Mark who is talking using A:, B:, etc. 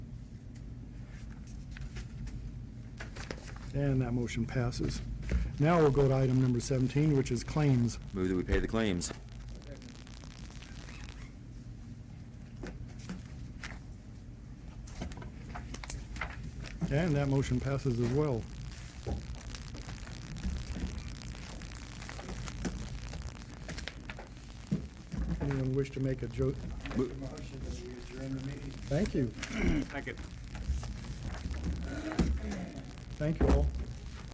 A: And that motion passes. Now we'll go to item number 17, which is claims.
B: Move that we pay the claims.
A: And that motion passes as well. Anyone wish to make a joke?
C: Motion that we adjourn the meeting.
A: Thank you.
D: Second.
A: Thank you all.